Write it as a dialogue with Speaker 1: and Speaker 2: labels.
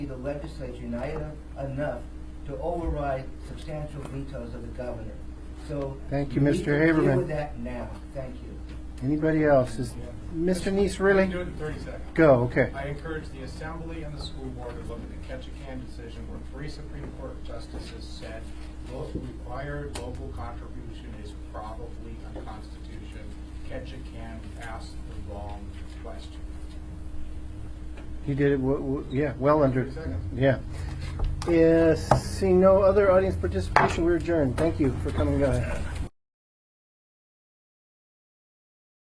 Speaker 1: the legislature united enough to override substantial vetoes of the governor. So.
Speaker 2: Thank you,
Speaker 1: we
Speaker 2: Mr.
Speaker 1: need to
Speaker 2: Haberman.
Speaker 1: Deal with that now. Thank you.
Speaker 2: Anybody else? Is Mr. Neese
Speaker 3: I can do
Speaker 2: really?
Speaker 3: it in 30 seconds.
Speaker 2: Go, okay.
Speaker 3: I encourage the Assembly and the school board to look at the Ketchikan decision where three Supreme Court justices said "Lo- required local contribution is probably unconstitutional. Ketchikan asked the wrong question.
Speaker 2: You did it, w- w- yeah, well under,
Speaker 3: Thirty seconds.
Speaker 2: yeah. Yes, seeing no other audience participation, we're adjourned. Thank you for coming, guys.